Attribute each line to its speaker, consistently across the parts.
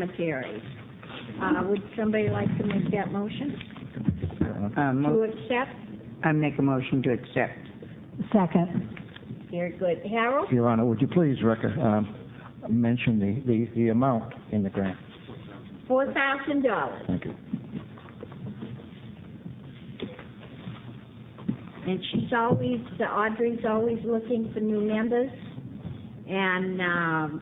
Speaker 1: cemetery. Uh, Would somebody like to make that motion?
Speaker 2: Uh,
Speaker 1: To
Speaker 2: mo-
Speaker 1: accept?
Speaker 2: I make a motion to accept.
Speaker 3: Second.
Speaker 1: Very good. Harold?
Speaker 4: Your Honor, would you please rec- um, mention the- the the amount in the grant?
Speaker 1: Four thousand dollars.
Speaker 4: Thank you.
Speaker 1: And she's always, Audrey's always looking for new members. And, um,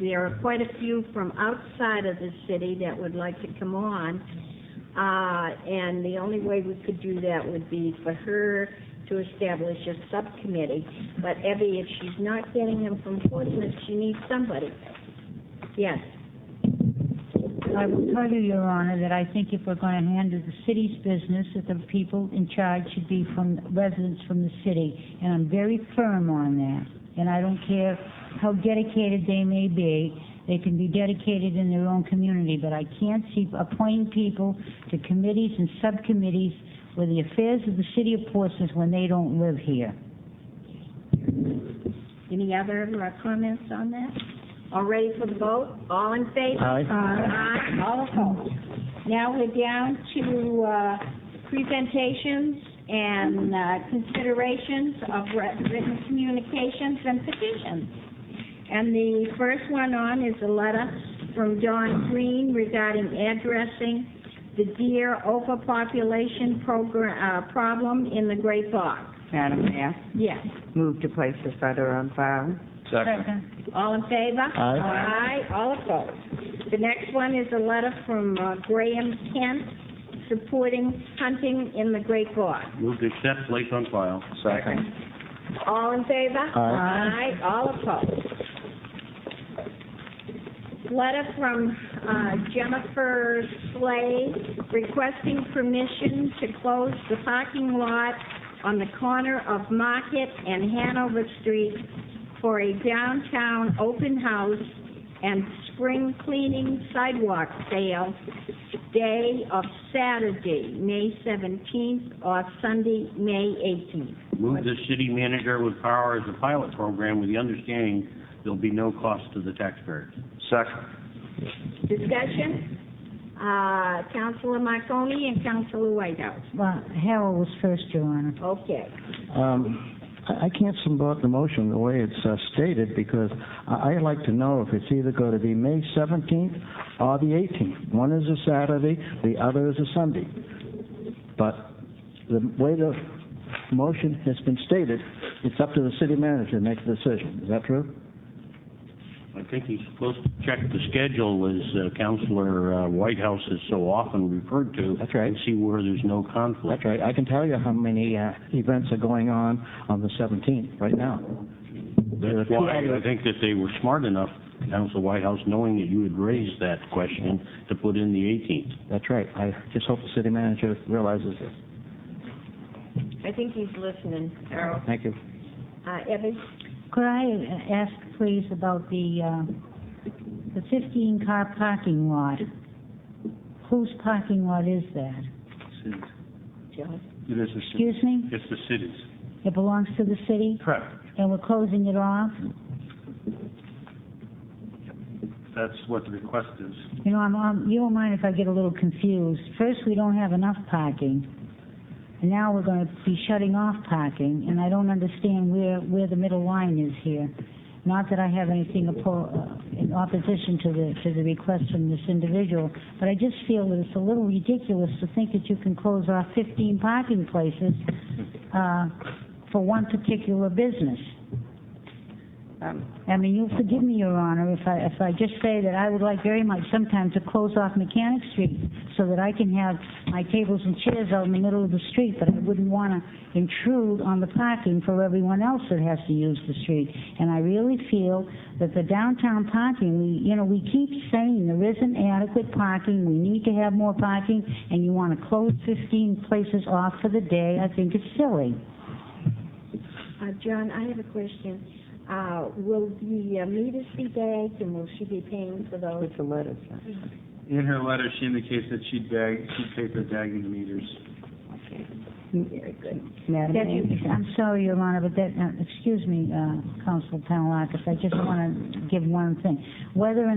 Speaker 1: there are quite a few from outside of the city that would like to come on. Uh, and the only way we could do that would be for her to establish a subcommittee. But Evie, if she's not getting them from Portsmouth, she needs somebody. Yes.
Speaker 3: I will tell you, Your Honor, that I think if we're going to handle the city's business, that the people in charge should be from, residents from the city, and I'm very firm on that. And I don't care how dedicated they may be, they can be dedicated in their own community, but I can't see appointing people to committees and subcommittees with the affairs of the city of Portsmouth when they don't live here.
Speaker 1: Any other uh, comments on that? All ready for the vote? All in favor?
Speaker 4: Aye.
Speaker 1: Aye. All opposed? Now we're down to uh, presentations and uh, considerations of writ- written communications and petitions. And the first one on is a letter from Don Green regarding addressing the deer overpopulation program, uh, problem in the Great Bog.
Speaker 2: Madam Mayor,
Speaker 1: Yes.
Speaker 2: move to place this letter on file.
Speaker 3: Second.
Speaker 1: All in favor?
Speaker 4: Aye.
Speaker 1: Aye, all opposed. The next one is a letter from uh, Graham Kent supporting hunting in the Great Gorge.
Speaker 5: Move to accept, place on file.
Speaker 4: Second.
Speaker 1: All in favor?
Speaker 4: Aye.
Speaker 1: Aye, all opposed. Letter from uh, Jennifer Slade requesting permission to close the parking lot on the corner of Market and Hanover Street for a downtown open house and spring cleaning sidewalk sale day of Saturday, May 17th, or Sunday, May 18th.
Speaker 5: Move the city manager with power as a pilot program with the understanding there'll be no cost to the taxpayers.
Speaker 4: Second.
Speaker 1: Discussion? Uh, Counselor Marconi and Counselor Whitehouse.
Speaker 3: Well, Harold was first, Your Honor.
Speaker 1: Okay.
Speaker 4: Um, I I can't support the motion the way it's uh, stated because I- I'd like to know if it's either going to be May 17th or the 18th. One is a Saturday, the other is a Sunday. But the way the motion has been stated, it's up to the city manager to make the decision. Is that true?
Speaker 5: I think he's supposed to check the schedule as uh, Counselor uh, Whitehouse is so often referred to.
Speaker 4: That's right.
Speaker 5: And see where there's no conflict.
Speaker 4: That's right. I can tell you how many uh, events are going on on the 17th right now. There are
Speaker 5: That's
Speaker 4: two
Speaker 5: why I
Speaker 4: other-
Speaker 5: think that they were smart enough, Counselor Whitehouse, knowing that you had raised that question, to put in the 18th.
Speaker 4: That's right. I just hope the city manager realizes this.
Speaker 1: I think he's listening, Harold.
Speaker 4: Thank you.
Speaker 1: Uh, Evans?
Speaker 3: Could I uh, ask, please, about the, uh, the 15-car parking lot? Whose parking lot is that?
Speaker 1: John?
Speaker 5: It is
Speaker 3: Excuse me?
Speaker 5: It's the city's.
Speaker 3: It belongs to the city,
Speaker 5: Correct.
Speaker 3: and we're closing it off?
Speaker 5: That's what the request is.
Speaker 3: You know, I'm, I'm- you don't mind if I get a little confused. First, we don't have enough parking, and now we're going to be shutting off parking, and I don't understand where, where the middle line is here. Not that I have anything oppo- uh, in opposition to the, to the request from this individual, but I just feel that it's a little ridiculous to think that you can close off 15 parking places uh, for one particular business.
Speaker 2: Um,
Speaker 3: I mean, you'll forgive me, Your Honor, if I, if I just say that I would like very much sometime to close off Mechanic Street so that I can have my tables and chairs out in the middle of the street, but I wouldn't want to intrude on the parking for everyone else that has to use the street. And I really feel that the downtown parking, we, you know, we keep saying there isn't adequate parking, we need to have more parking, and you want to close 15 places off for the day, I think it's silly.
Speaker 1: Uh, John, I have a question. Uh, will the uh, meters be bagged and will she be paying for those?
Speaker 2: With the letter,
Speaker 6: In her letter, she indicates that she'd bag, she'd pay for bagging the meters.
Speaker 1: Okay.
Speaker 2: Madam
Speaker 3: That-
Speaker 2: Mayor?
Speaker 3: I'm sorry, Your Honor, but that, uh, excuse me, uh, Counsel Penelakis, I just want to give one thing. Whether or